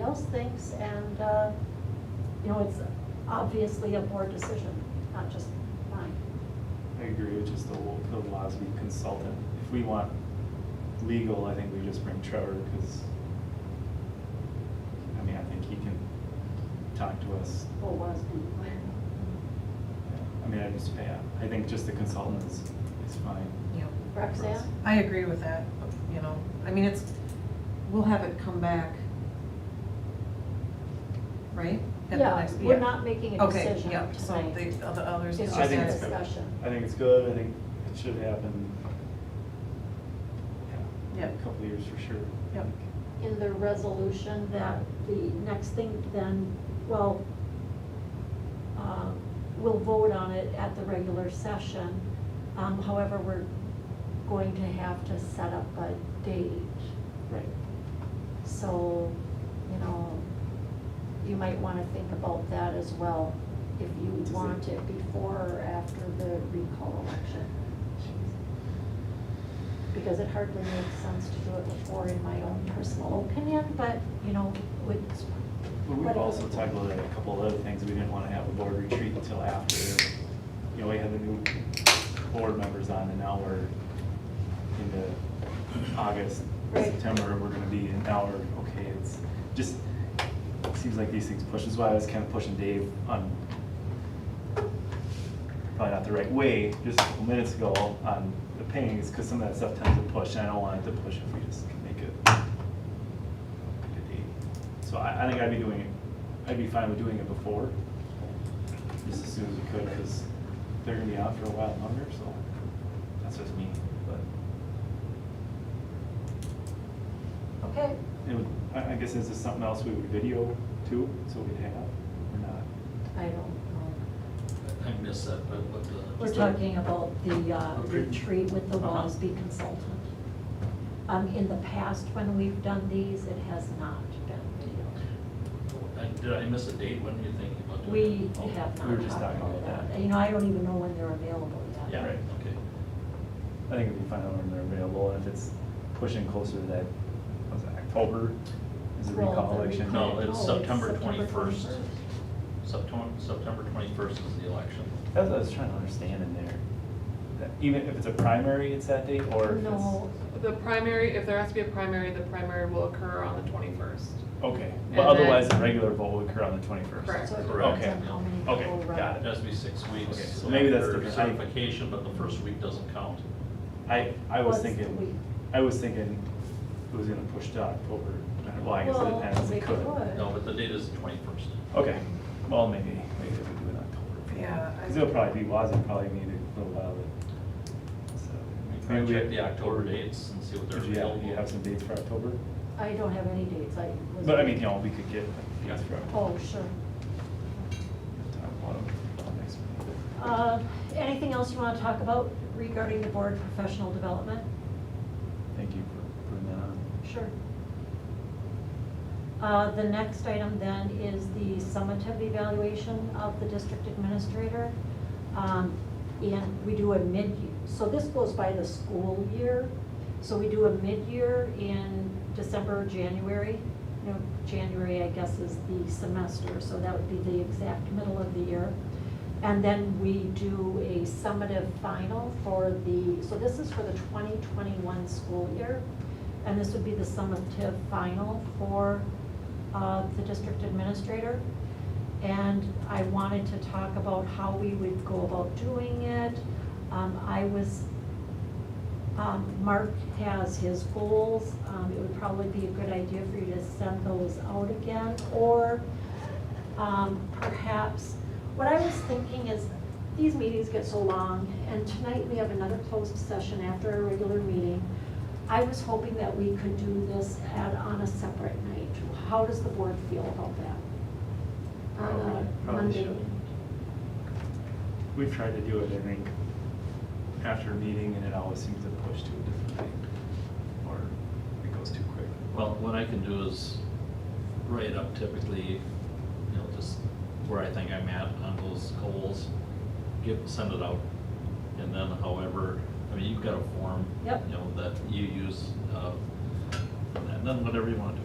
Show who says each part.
Speaker 1: else thinks, and, uh, you know, it's obviously a board decision, not just mine.
Speaker 2: I agree, which is the, Wa- the WASB consultant. If we want legal, I think we just bring Trevor, because, I mean, I think he can talk to us.
Speaker 1: What was and where.
Speaker 2: Yeah. I mean, I just, yeah, I think just the consultant is, is fine.
Speaker 3: Yeah,
Speaker 1: Roxanne?
Speaker 3: I agree with that, you know, I mean, it's, we'll have it come back, right? At the
Speaker 1: Yeah,
Speaker 3: next-
Speaker 1: we're not making a
Speaker 3: Okay,
Speaker 1: decision
Speaker 3: yeah, so
Speaker 1: tonight.
Speaker 3: the, the others.
Speaker 1: It's
Speaker 2: I
Speaker 1: just a
Speaker 2: think it's good.
Speaker 1: discussion.
Speaker 2: I think it's good, I think it should happen, yeah,
Speaker 3: Yep.
Speaker 2: a couple of years for sure.
Speaker 3: Yep.
Speaker 1: in the resolution that the next thing then, well, uh, we'll vote on it at the regular session. Um, However, we're going to have to set up a date.
Speaker 2: Right.
Speaker 1: So, you know, you might want to think about that as well, if
Speaker 2: Does
Speaker 1: you
Speaker 2: it-
Speaker 1: want it before or after the recall election. Because it hardly makes sense to do it before, in my own personal opinion, but, you know, would,
Speaker 2: But we've
Speaker 1: Whatever.
Speaker 2: also talked about a couple of other things, we didn't wanna have a board retreat until after, you know, we had the new board members on, and now we're into August,
Speaker 1: Right.
Speaker 2: September, we're gonna be, and now we're, okay, it's just, it seems like these things push, that's why I was kinda pushing Dave on, probably not the right way, just a couple minutes ago, on the pings, cause some of that stuff tends to push, and I don't want it to push if we just make it like a date. So I, I think I'd be doing it, I'd be fine with doing it before, just as soon as we could, because they're gonna be out for a while longer, so that's just me, but
Speaker 1: okay,
Speaker 2: it would, I, I guess is this something else we would video too, so we'd have, or not?
Speaker 1: I don't know.
Speaker 4: I missed that, but what the.
Speaker 1: We're talking about the uh, retreat with the
Speaker 2: Uh-huh.
Speaker 1: WASB consultant. Um, in the past, when we've done these, it has not been.
Speaker 4: I- Did I miss a date? When are you thinking about
Speaker 1: We
Speaker 4: doing it? Oh,
Speaker 1: have
Speaker 2: we were
Speaker 1: not
Speaker 2: just
Speaker 1: talked
Speaker 2: talking
Speaker 1: about
Speaker 2: about
Speaker 1: that.
Speaker 2: that.
Speaker 1: You know, I don't even know when they're available yet.
Speaker 4: Oh, Yeah,
Speaker 2: Right.
Speaker 4: right, okay.
Speaker 2: I think it'd be fine when they're available, and if it's pushing closer to that, what's that, October? Is the
Speaker 1: Well,
Speaker 2: recall
Speaker 1: the
Speaker 2: election?
Speaker 1: recall-
Speaker 4: No, it's
Speaker 1: oh,
Speaker 4: September 21st. September, September twenty-first is the election.
Speaker 2: That's what I was trying to understand in there, that even if it's a primary, it's that date, or if it's.
Speaker 1: No,
Speaker 5: The primary, if there has to be a primary, the primary will occur on the twenty-first.
Speaker 2: Okay,
Speaker 5: And
Speaker 2: but otherwise the
Speaker 5: then-
Speaker 2: regular vote would occur on the twenty-first.
Speaker 5: Correct.
Speaker 1: so it
Speaker 2: Correct.
Speaker 1: depends on how many
Speaker 2: Okay,
Speaker 1: people
Speaker 2: okay,
Speaker 1: run.
Speaker 2: got
Speaker 4: It has to be six weeks.
Speaker 2: Okay, so maybe that's
Speaker 4: after
Speaker 2: different. I-
Speaker 4: Certification, but the first week doesn't count.
Speaker 2: I, I was
Speaker 1: Once a week.
Speaker 2: thinking, I was thinking it was gonna push to October, well, I guess it
Speaker 1: Well,
Speaker 2: depends,
Speaker 1: they
Speaker 2: it could.
Speaker 1: could.
Speaker 4: No, but the date is the twenty-first.
Speaker 2: Okay, well, maybe, maybe we do it in October.
Speaker 3: Yeah, I-
Speaker 2: Cause it'll probably be, WASD probably need a little while, but, so.
Speaker 4: We can check the October dates and see what they're
Speaker 2: Did you have,
Speaker 4: available.
Speaker 2: you have some dates for October?
Speaker 1: I don't have any dates, I was.
Speaker 2: But I mean, you know, we could get, yes, for October.
Speaker 1: Oh, sure.
Speaker 2: Talk about it next meeting.
Speaker 1: Uh, anything else you want to talk about regarding the board professional development?
Speaker 2: Thank you for putting that on.
Speaker 1: Sure. Uh, The next item then is the summative evaluation of the district administrator. Um, And we do a mid-year, so this goes by the school year. So we do a mid-year in December, January. You know, January, I guess, is the semester, so that would be the exact middle of the year. And then we do a summative final for the, so this is for the 2021 school year. And this would be the summative final for uh, the district administrator. And I wanted to talk about how we would go about doing it. Um, I was, um, Mark has his goals. Um, It would probably be a good idea for you to send those out again. Or um, perhaps, what I was thinking is, these meetings get so long, and tonight we have another closed session after our regular meeting. I was hoping that we could do this at, on a separate night. How does the board feel about that?
Speaker 2: Probably-
Speaker 1: On a
Speaker 2: probably
Speaker 1: Monday
Speaker 2: should.
Speaker 1: night?
Speaker 2: We've tried to do it, I think, after a meeting, and it always seems to push to a different thing, or it goes too quick.
Speaker 4: Well, what I can do is write up typically, you know, just where I think I'm at on those goals, get, send it out. And then however, I mean, you've got a form.
Speaker 1: Yep.
Speaker 4: You know, that you use, uh, and then whatever you want to